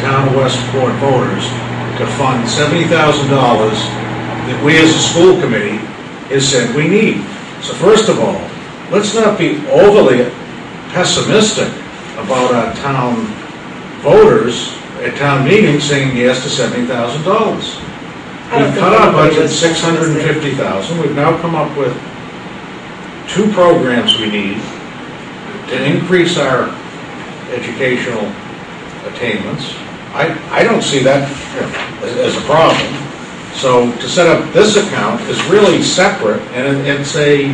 town of Westport voters to fund seventy thousand dollars that we as a school committee has said we need. So first of all, let's not be overly pessimistic about our town voters at town meetings saying yes to seventy thousand dollars. I We don't think cut our anybody budget was six hundred and fifty thousand, we've now come up with two programs we need to increase our educational attainments. I, I don't see that you know, as, as a problem. So to set up this account is really separate, and it- it's a,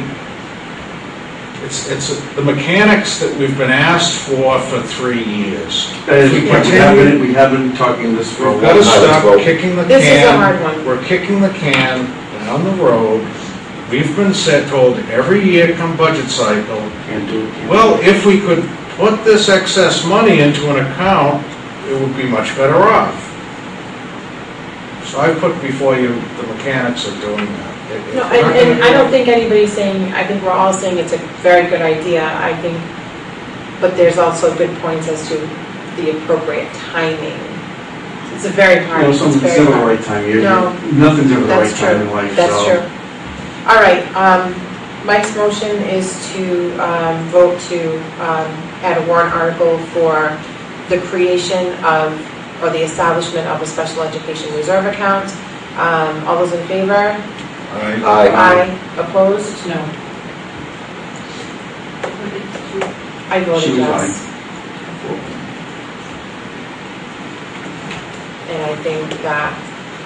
it's, it's the mechanics that we've been asked for for three years. And We we have continue- been, we have been talking this for a We've while. got to stop kicking the can. This is a hard one. We're kicking the can down the road. We've been said, told every year come budget cycle, Can't do it. can't do it. well, if we could put this excess money into an account, it would be much better off. So I put before you the mechanics of doing that. It- No, it's not and, and gonna- I don't think anybody's saying, I think we're all saying it's a very good idea, I think, but there's also good points as to the appropriate timing. It's a very You hard, know, it's something's very never the hard. right time, you No. nothing's ever the right That's time true, in life, so. that's true. All right, um, Mike's motion is to, um, vote to, um, add a warrant article for the creation of, or the establishment of a special education reserve account. Um, all those in favor? I- Aye. Opposed? No. I She voted was yes, and I think that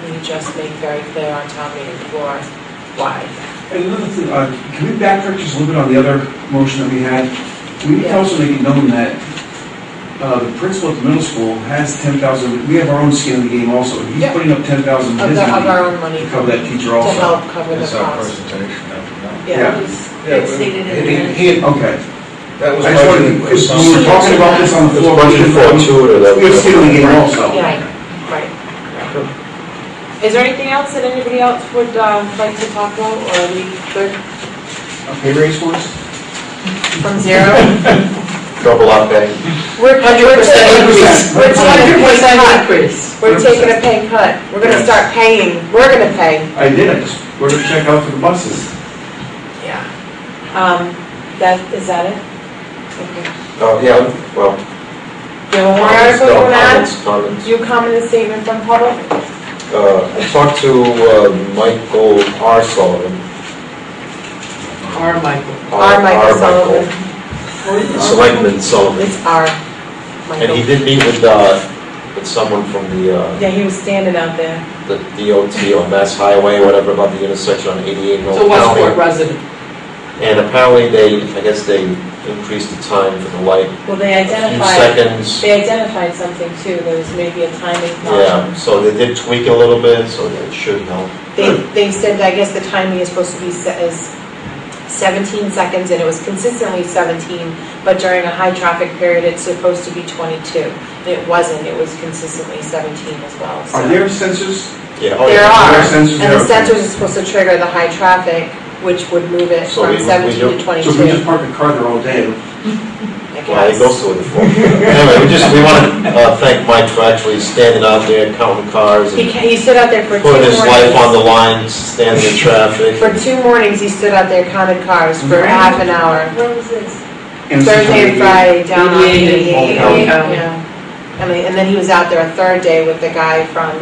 we just make very clear on town meeting floor why. And another thing, uh, can we backtrack just a little bit on the other motion that we had? We need to also make it known that uh, the principal at the middle school has ten thousand, we have our own skin in the game also. He's Yeah. putting up ten thousand of Of his the- of our own money money to to cover that teacher also. help cover the It's our cost. presentation, I Yeah. don't know. He- he- Okay. That was I just wanted, budgeted for to- if we were some, talking about this on the It's floor. budgeted for two of them. We have skin in the game also. Yeah, right. Is there anything else that anybody else would um, like to talk about, or are we good Uh, Pay raise for us? from zero? Double up pay. We're, we're taking, we're taking a pay cut. increase. We're taking a pay cut. We're gonna start paying, we're gonna pay. I did, I just wrote a check out for the buses. Yeah. Um, that, is that it? Okay. Oh, yeah, well. Do you have more comments, article no on that? Comments, comments. Do you comment a statement from public? Uh, I talked to uh, Michael R. Sullivan. Or Michael. Our Michael R. Sullivan. Michael. Selectman Sullivan. It's our And he Michael. did meet with, uh, with someone from the, uh, Yeah, he was standing out there. the DOT on Mass Highway, whatever, about the intersection on 88 and Old So Westport County. resident. And apparently they, I guess they increased the time for the light Well, they a few identified, seconds. they identified something too. There was maybe a timing problem. Yeah, so they did tweak it a little bit, so that should help. They, they said, I guess the timing is supposed to be se- is 17 seconds, and it was consistently 17, but during a high-traffic period, it's supposed to be 22. And it wasn't, it was consistently 17 as well, so. Are there sensors? Yeah. oh, There yeah. are, there are sensors and the there, okay. sensors are supposed to trigger the high traffic, which would move it So from we- we 17 don't- to So if we just 22. park a car there all day, I Well, it goes guess. to the floor. Anyway, we just, we want to uh, thank Mike for actually standing out there counting cars He and ca- he stood out there for two putting his life on mornings. the line, standing in traffic. For two mornings, he stood out there counted cars for Right. half an hour. Where was this? and Thursday sometimes- and Friday down on Eighty-eight and eighty-eight, Old Town. yeah. I mean, and then he was out there a third day with the guy from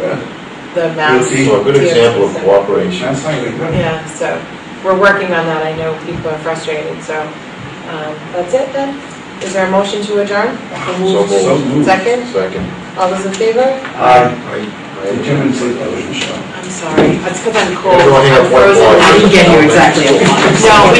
the mass. DOT. So a good example of cooperation. That's highway, good. Yeah, so we're working on that. I know people are frustrated, so um, that's it then. Is there a motion to adjourn? So So moved. moved. Second? Second. All those in favor? Aye. Right. Jim and Sid, that was your show. I'm sorry. That's because I'm cold. Everyone hang I'm up one frozen ball. I now. didn't get here exactly at one. No, we